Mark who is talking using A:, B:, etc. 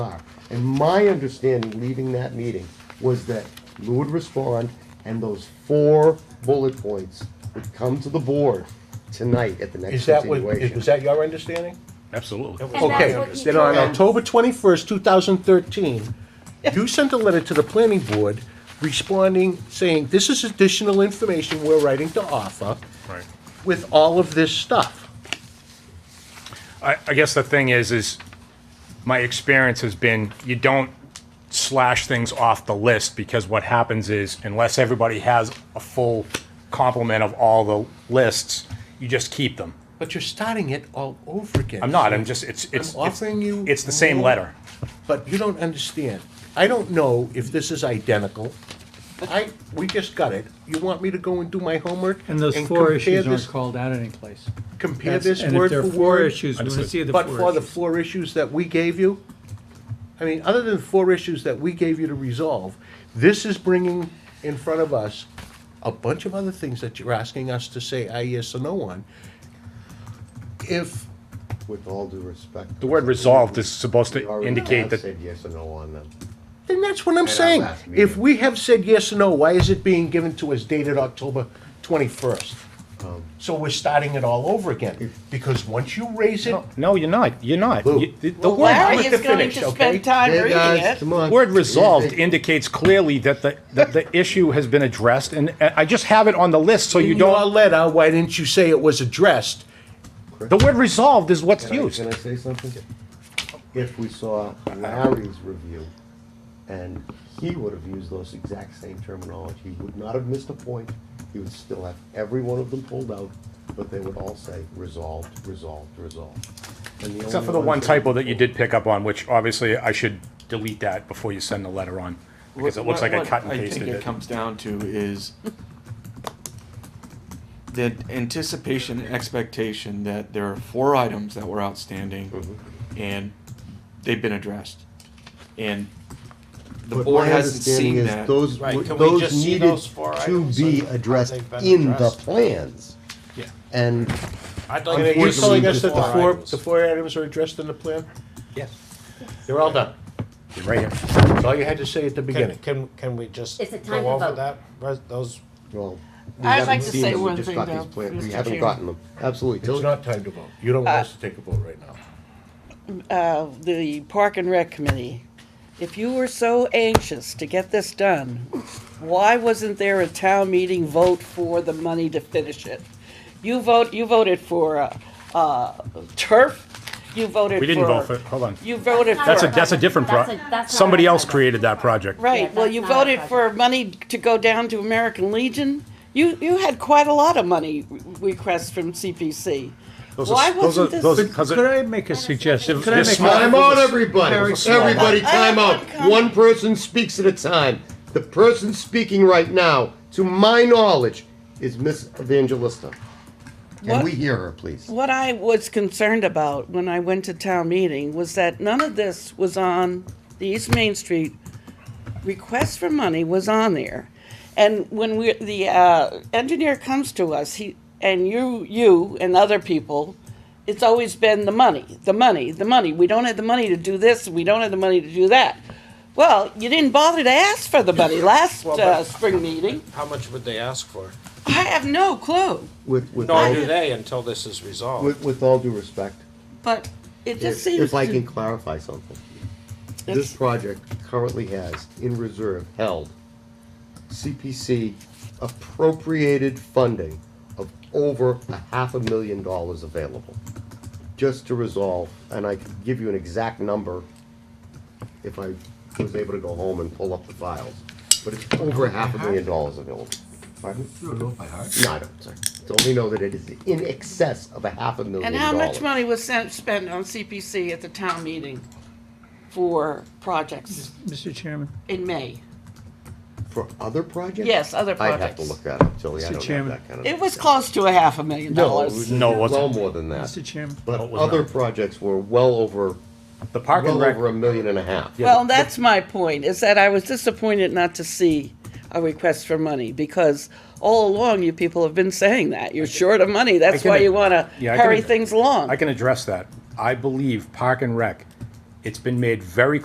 A: are. And my understanding, leaving that meeting, was that Lou would respond, and those four bullet points would come to the board tonight at the next
B: Is that what, is-
A: continuation.
B: was that your understanding?
C: Absolutely.
D: And that's
B: Okay,
D: what he
B: then on
D: did.
B: October twenty-first, two thousand thirteen, you sent a letter to the planning board responding, saying, this is additional information we're writing to offer
C: Right.
B: with all of this stuff.
C: I, I guess the thing is, is my experience has been you don't slash things off the list because what happens is unless everybody has a full complement of all the lists, you just keep them.
B: But you're starting it all over again.
C: I'm not. I'm just. It's.
B: I'm
C: It's. it's,
B: offering you
C: it's the same
B: more-
C: letter.
B: But you don't understand. I don't know if this is identical. I, we just got it. You want me to go and do my homework?
E: And those four
B: compare
E: issues aren't
B: this-
E: called out any place.
B: Compare
E: That's-
B: this
E: And if
B: word
E: there
B: for
E: are four
B: word?
E: issues, we want to
C: Understood.
E: see the
B: But for
E: four
B: the
E: issues.
B: four issues that we gave you, I mean, other than the four issues that we gave you to resolve, this is bringing in front of us a bunch of other things that you're asking us to say aye, yes, or no on. If,
A: With all due respect.
C: The word resolved is supposed
A: We
C: to
A: already
C: indicate
A: have
C: that.
A: Said yes or no on them.
B: then that's what I'm
A: our
B: saying.
A: last meeting.
B: If we have said yes or no, why is it being given to us dated October twenty-first? So we're starting Um. it all over again, because once you raise it,
C: No, you're not. You're not.
A: Lou.
C: You- the- the
D: Well,
C: word-
D: Larry
B: Let the
D: is going
B: finish,
D: to
B: okay?
D: spend time
A: Hey,
D: reading
A: guys,
D: it.
A: come on.
C: Word resolved indicates clearly that the, that the issue has been addressed, and and I just have it on the list, so you
B: in your
C: don't,
B: letter, why didn't you say it was addressed?
C: the word resolved is what's
A: Can I-
C: used.
A: Can I say something? If we saw Larry's review, and he would have used those exact same terminology, he would not have missed a point, he would still have every one of them pulled out, but they would all say resolved, resolved, resolved. And
C: Except
A: only
C: for the one
A: ones that-
C: typo that you did pick up on, which obviously I should delete that before you send the letter on, because it looks
F: What-
C: like I
F: what
C: cut and
F: I
C: pasted
F: think it
C: it.
F: comes down to is the anticipation and expectation that there are four items that were
C: Mm-hmm.
F: outstanding and they've been addressed. And the
A: But
F: board
A: my
F: hasn't
A: understanding
F: seen
A: is
F: that.
A: Those,
G: Right,
A: were-
G: can we
A: those
G: just see
A: needed
G: those four
A: to
G: items
A: be
G: and how
A: addressed
G: they've been
A: in the
G: addressed?
A: plans.
G: Yeah.
A: And
G: I'd
B: I
G: like
B: mean,
G: to
B: Are you
A: Unfortunately,
B: telling us that the
A: before
B: four, the four items are addressed in the plan?
G: Yes.
B: They're all done.
C: Right here.
B: That's all you had to say at the
G: Can,
B: beginning.
G: can, can we just
D: It's a time
G: go
D: to
G: over
D: vote.
G: that, res- those,
A: Well, we
D: I'd
A: haven't
D: like to
A: seen
D: say
A: them, we
D: one
A: just
D: thing,
A: got these
D: though,
A: plans, We
D: Mr.
A: haven't
D: Chair.
A: gotten them, absolutely.
B: It's not time to vote. You don't want us to take a vote right now.
D: Uh, The Park and Rec Committee, if you were so anxious to get this done, why wasn't there a town meeting vote for the money to finish it? You vote, you voted for uh, uh, turf, you voted for.
C: We didn't vote for, it. hold on.
D: You voted for.
C: That's a, that's a different pro,
H: That's a- that's not
C: somebody
H: a-
C: else created that project.
H: Yeah,
D: Right, well,
H: that's
D: you
H: not our
D: voted for money to go down to American Legion. You, you had quite a lot of money re- requests from CPC.
C: Those
D: Why
C: are, those are,
D: wasn't this?
C: those, because
E: Could I make a suggestion?
C: Could I make-
A: Time out, everybody.
E: Very small.
A: Everybody,
D: I have
A: time out.
D: one comment.
A: One person speaks at a time. The person speaking right now, to my knowledge, is Miss Evangelista. Can
D: What?
A: we hear her, please?
D: What I was concerned about when I went to town meeting was that none of this was on the East Main Street. Request for money was on there. And when we, the uh, engineer comes to us, he, and you, you and other people, it's always been the money, the money, the money. We don't have the money to do this, we don't have the money to do that. Well, you didn't bother to ask for the money last
G: Well,
D: uh,
G: but-
D: spring meeting.
G: how much would they ask for?
D: I have no clue.
A: With, with
G: Nor
A: all,
G: do they until this is resolved.
A: with, with all due respect,
D: But it
A: if,
D: just seems
A: if I
D: to-
A: can clarify something. This
D: It's-
A: project currently has in reserve held CPC appropriated funding of over a half a million dollars available. Just to resolve, and I could give you an exact number if I was able to go home and pull up the files. But it's over half a million dollars available. Pardon? You don't know by heart? No, I don't, sorry. It's only know that it is in excess of a half a million
D: And
A: dollars.
D: how much money was sent, spent on CPC at the town meeting for projects
E: Mr. Chairman,
D: in May?
A: For other projects?
D: Yes, other
A: I'd have to
D: projects.
A: look that up, Tilly, I
E: Mr.
A: don't have
E: Chairman.
A: that kind of.
D: It was close to a half a million
A: No, it
D: dollars.
A: was
C: No, it wasn't.
A: well more than that.
E: Mr. Chairman,
C: No, it
A: But
C: was
A: other
C: not.
A: projects were well over,
C: the park and
A: well
C: rec,
A: over a million and a half.
D: Well, that's my point, is that I was disappointed not to see a request for money, because all along you people have been saying that. You're short of money, that's
C: can
D: why
C: ag-
D: you wanna
C: Yeah, I can
D: hurry
C: ag-
D: things along.
C: I can address that. I believe park and rec, it's been made very